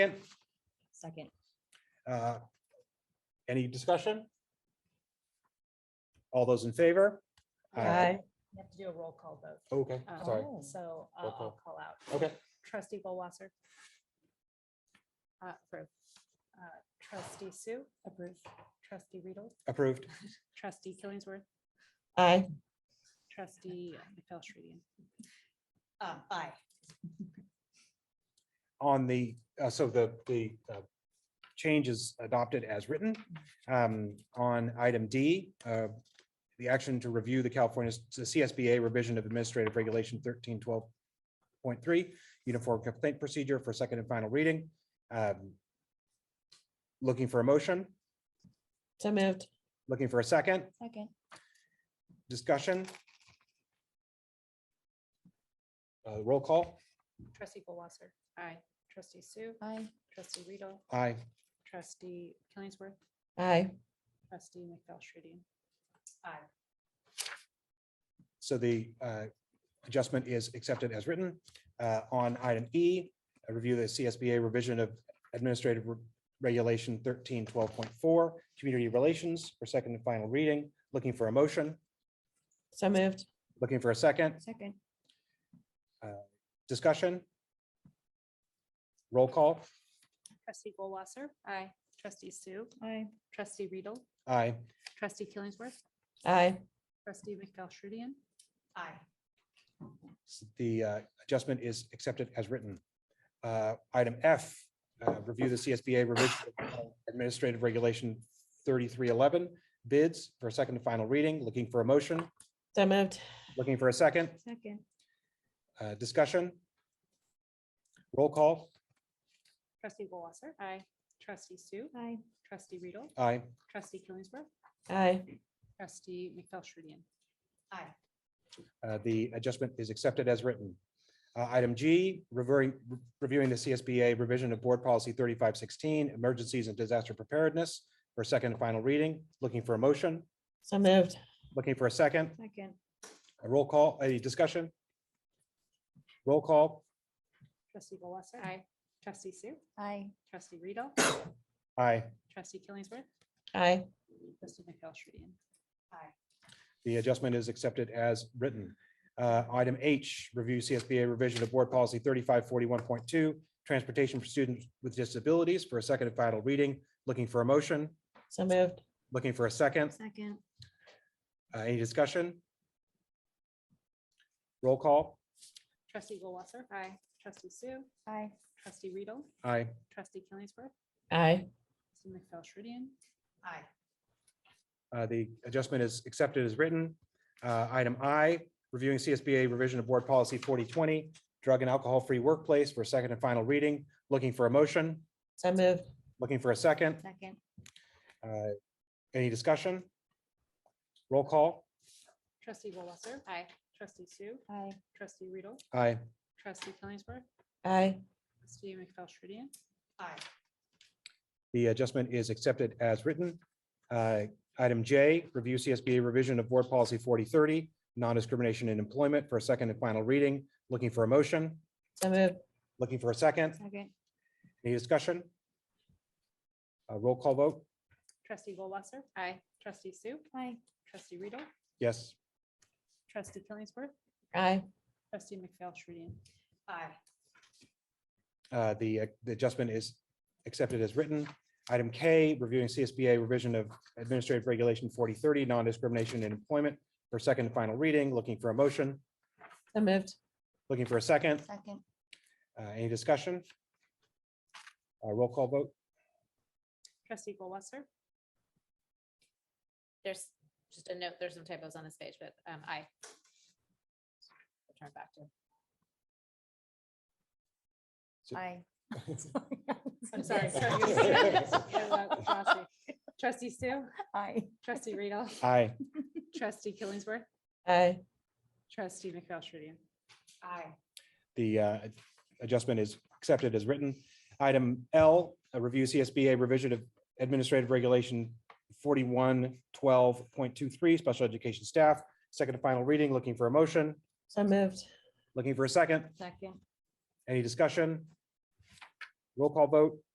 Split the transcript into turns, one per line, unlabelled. Second.
Uh, Any discussion? All those in favor? Aye.
You have to do a roll call vote.
Okay,
um,
sorry.
Oh.
So uh,
Roll call.
I'll call out.
Okay.
Trustee Goldwasser. Uh, approve. Uh, Trustee Sue. Approve. Trustee Riedel,
Approved.
trustee Killingsworth,
Aye.
trustee McFellshreedian. Um,
Aye.
On the, uh, so the, the uh, change is adopted as written. Um, On item D, uh, the action to review the California s- the CSBA revision of administrative regulation thirteen twelve point three, uniform complaint procedure for second and final reading. Um, Looking for a motion,
So moved.
looking for a second?
Second.
Discussion? Uh, Roll call?
Trustee Goldwasser. Aye. Trustee Sue,
Aye.
trustee Riedel,
Aye.
trustee Killingsworth,
Aye.
trustee McFellshreedian. Aye.
So the uh, adjustment is accepted as written. Uh, On item E, a review of the CSBA revision of Administrative Re- Regulation thirteen twelve point four, Community Relations for second and final reading. Looking for a motion,
So moved.
looking for a second,
Second.
discussion? Roll call?
Trustee Goldwasser. Aye. Trustee Sue,
Aye.
trustee Riedel,
Aye.
trustee Killingsworth,
Aye.
trustee McFellshreedian. Aye.
The uh, adjustment is accepted as written. Uh, Item F, uh, review the CSBA revision of Administrative Regulation thirty-three eleven, bids for second and final reading. Looking for a motion,
So moved.
looking for a second?
Second.
Uh, Discussion? Roll call?
Trustee Goldwasser. Aye. Trustee Sue,
Aye.
trustee Riedel,
Aye.
trustee Killingsworth,
Aye.
trustee McFellshreedian. Aye.
Uh, The adjustment is accepted as written. Uh, Item G, reviewing, reviewing the CSBA revision of Board Policy 3516, Emergencies and Disaster Preparedness for second and final reading. Looking for a motion,
So moved.
looking for a second?
Second.
A roll call, a discussion? Roll call?
Trustee Goldwasser. Aye. Trustee Sue,
Aye.
trustee Riedel,
Aye.
trustee Killingsworth,
Aye.
trustee McFellshreedian. Aye.
The adjustment is accepted as written. Uh, Item H, review CSBA revision of Board Policy 3541.2, Transportation for Students with Disabilities for a second and final reading. Looking for a motion,
So moved.
looking for a second.
Second.
Uh, Any discussion? Roll call.
Trustee Goldwasser. Aye. Trustee Sue,
Aye.
trustee Riedel,
Aye.
trustee Killingsworth,
Aye.
trustee McFellshreedian. Aye.
Uh, The adjustment is accepted as written. Uh, Item I, reviewing CSBA revision of Board Policy 4020, Drug and Alcohol-Free Workplace for a second and final reading. Looking for a motion,
So moved.
looking for a second.
Second.
Uh, Any discussion? Roll call.
Trustee Goldwasser. Aye. Trustee Sue,
Aye.
trustee Riedel,
Aye.
trustee Killingsworth,
Aye.
trustee McFellshreedian. Aye.
The adjustment is accepted as written. Uh, Item J, review CSBA revision of Board Policy 4030, non-discrimination in employment for a second and final reading. Looking for a motion,
So moved.
looking for a second.
Second.
Any discussion? Uh, Roll call vote.
Trustee Goldwasser. Aye. Trustee Sue. Aye. Trustee Riedel,
Yes.
trustee Killingsworth,
Aye.
trustee McFellshreedian. Aye.
Uh, The uh, the adjustment is accepted as written. Item K, reviewing CSBA revision of Administrative Regulation 4030, non-discrimination in employment for second and final reading. Looking for a motion,
So moved.
looking for a second.
Second.
Uh, Any discussion? Uh, Roll call vote.
Trustee Goldwasser.
There's just a note, there's some typos on this page, but um, I. Turn it back to.
So-
I.
I'm sorry. Trustee Sue,
I.
trustee Riedel,
Aye.
trustee Killingsworth,
Aye.
trustee McFellshreedian. Aye.
The uh, adjustment is accepted as written. Item L, a review CSBA revision of Administrative Regulation 4112.23, special education staff, second and final reading. Looking for a motion,
So moved.
looking for a second.
Second.
Any discussion? Roll call vote,